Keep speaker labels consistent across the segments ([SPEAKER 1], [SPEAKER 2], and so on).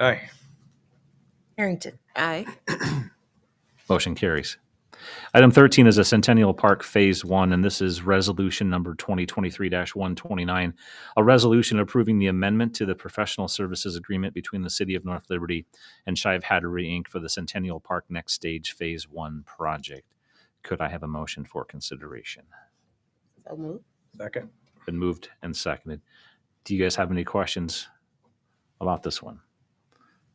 [SPEAKER 1] Aye.
[SPEAKER 2] Harrington.
[SPEAKER 3] Aye.
[SPEAKER 4] Motion carries. Item 13 is a Centennial Park Phase 1, and this is Resolution Number 2023-129, a resolution approving the amendment to the professional services agreement between the City of North Liberty and Shive Hattery, Inc. for the Centennial Park Next Stage Phase 1 project. Could I have a motion for consideration?
[SPEAKER 2] So moved.
[SPEAKER 1] Second.
[SPEAKER 4] Been moved and seconded. Do you guys have any questions about this one?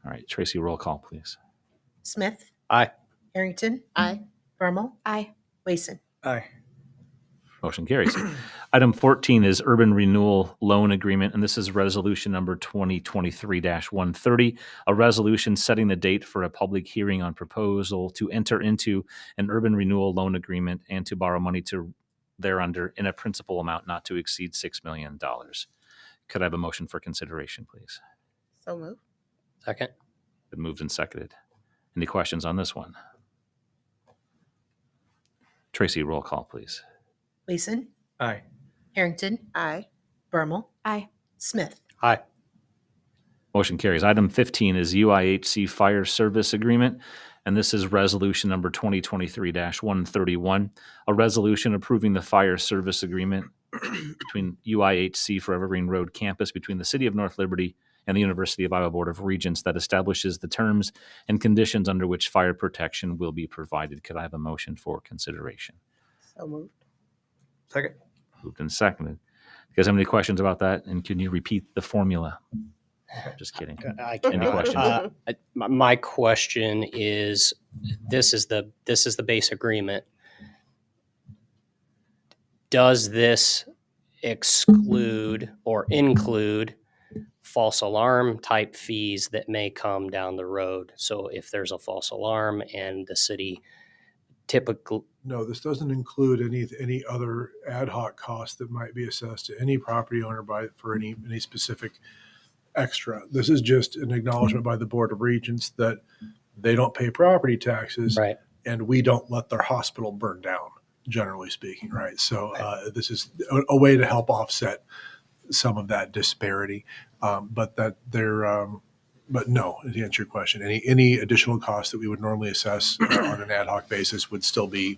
[SPEAKER 4] All right, Tracy, roll call, please.
[SPEAKER 2] Smith.
[SPEAKER 1] Aye.
[SPEAKER 2] Harrington.
[SPEAKER 3] Aye.
[SPEAKER 2] Bermal.
[SPEAKER 3] Aye.
[SPEAKER 2] Wason.
[SPEAKER 1] Aye.
[SPEAKER 4] Motion carries. Item 14 is urban renewal loan agreement, and this is resolution number 2023-130, a resolution setting the date for a public hearing on proposal to enter into an urban renewal loan agreement and to borrow money to thereunder in a principal amount not to exceed $6 million. Could I have a motion for consideration, please?
[SPEAKER 2] So moved.
[SPEAKER 1] Second.
[SPEAKER 4] Been moved and seconded. Any questions on this one? Tracy, roll call, please.
[SPEAKER 2] Wason.
[SPEAKER 1] Aye.
[SPEAKER 2] Harrington.
[SPEAKER 3] Aye.
[SPEAKER 2] Bermal.
[SPEAKER 3] Aye.
[SPEAKER 2] Smith.
[SPEAKER 1] Aye.
[SPEAKER 4] Motion carries. Item 15 is UIHC Fire Service Agreement, and this is Resolution Number 2023-131, a resolution approving the fire service agreement between UIHC for Evergreen Road Campus between the City of North Liberty and the University of Iowa Board of Regents that establishes the terms and conditions under which fire protection will be provided. Could I have a motion for consideration?
[SPEAKER 2] So moved.
[SPEAKER 1] Second.
[SPEAKER 4] Moved and seconded. You guys have any questions about that? And can you repeat the formula? Just kidding.
[SPEAKER 5] I
[SPEAKER 4] Any
[SPEAKER 5] cannot.
[SPEAKER 4] questions?
[SPEAKER 5] Uh, I- My my question is, this is the, this is the base agreement. Does this exclude or include false alarm type fees that may come down the road? So if there's a false alarm and the city typical,
[SPEAKER 6] No, this doesn't include any, any other ad hoc costs that might be assessed to any property owner by, for any, any specific extra. This is just an acknowledgement by the Board of Regents that they don't pay property taxes.
[SPEAKER 5] Right.
[SPEAKER 6] And we don't let their hospital burn down, generally speaking, right? So uh, this is a, a way to help offset some of that disparity. Um, But that they're, um, but no, to answer your question, any, any additional costs that we would normally assess uh, on an ad hoc basis would still be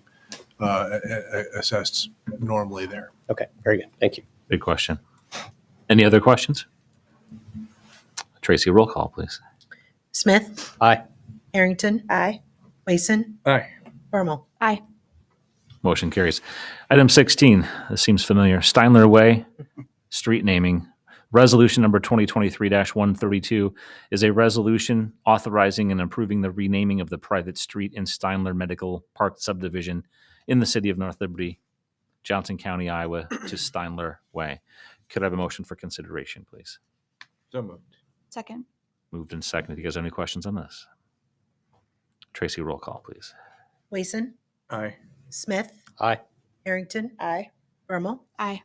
[SPEAKER 6] uh, a- a- assessed normally there.
[SPEAKER 5] okay, very good, thank you.
[SPEAKER 4] Good question. Any other questions? Tracy, roll call, please.
[SPEAKER 2] Smith.
[SPEAKER 5] Aye.
[SPEAKER 2] Harrington.
[SPEAKER 3] Aye.
[SPEAKER 2] Wason.
[SPEAKER 1] Aye.
[SPEAKER 2] Bermal.
[SPEAKER 3] Aye.
[SPEAKER 4] Motion carries. Item 16, this seems familiar. Steinler Way, street naming. Resolution number 2023-132 is a resolution authorizing and approving the renaming of the private street in Steinler Medical Park subdivision in the city of North Liberty, Johnson County, Iowa, to Steinler Way. Could I have a motion for consideration, please?
[SPEAKER 1] So moved.
[SPEAKER 3] Second.
[SPEAKER 4] Moved and seconded. You guys have any questions on this? Tracy, roll call, please.
[SPEAKER 2] Wason.
[SPEAKER 1] Aye.
[SPEAKER 2] Smith.
[SPEAKER 5] Aye.
[SPEAKER 2] Harrington.
[SPEAKER 3] Aye.
[SPEAKER 2] Bermal.
[SPEAKER 3] Aye.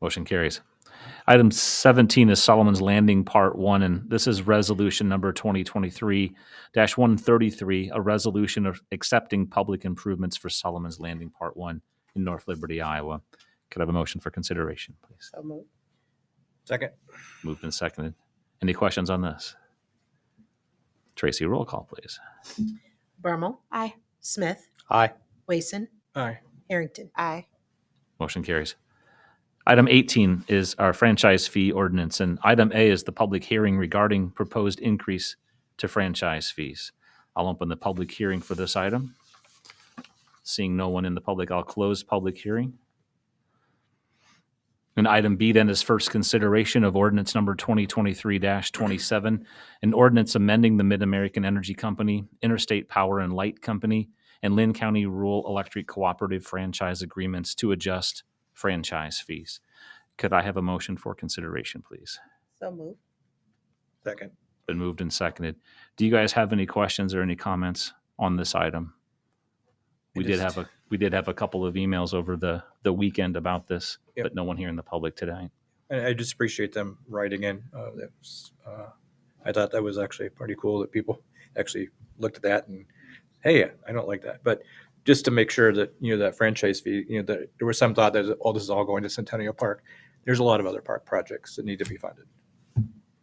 [SPEAKER 4] Motion carries. Item 17 is Solomon's Landing Part 1, and this is resolution number 2023-133, a resolution of accepting public improvements for Solomon's Landing Part 1 in North Liberty, Iowa. Could I have a motion for consideration, please?
[SPEAKER 2] So moved.
[SPEAKER 1] Second.
[SPEAKER 4] Moved and seconded. Any questions on this? Tracy, roll call, please.
[SPEAKER 2] Bermal.
[SPEAKER 3] Aye.
[SPEAKER 2] Smith.
[SPEAKER 5] Aye.
[SPEAKER 2] Wason.
[SPEAKER 1] Aye.
[SPEAKER 2] Harrington.
[SPEAKER 3] Aye.
[SPEAKER 4] Motion carries. Item 18 is our franchise fee ordinance, and item A is the public hearing regarding proposed increase to franchise fees. I'll open the public hearing for this item. Seeing no one in the public, I'll close public hearing. And item B then is first consideration of ordinance number 2023-27, an ordinance amending the Mid-American Energy Company, Interstate Power and Light Company, and Lynn County Rural Electric Cooperative franchise agreements to adjust franchise fees. Could I have a motion for consideration, please?
[SPEAKER 2] So moved.
[SPEAKER 1] Second.
[SPEAKER 4] Been moved and seconded. Do you guys have any questions or any comments on this item? We
[SPEAKER 1] I
[SPEAKER 4] did
[SPEAKER 1] just-
[SPEAKER 4] have a, we did have a couple of emails over the, the weekend about this,
[SPEAKER 1] Yep.
[SPEAKER 4] but no one here in the public today.
[SPEAKER 1] I, I just appreciate them writing in. Uh, that was, uh, I thought that was actually pretty cool that people actually looked at that and, hey, I don't like that. But just to make sure that, you know, that franchise fee, you know, oh, that there was some thought that all this is all going to Centennial Park. There's a lot of other park projects that need to be funded.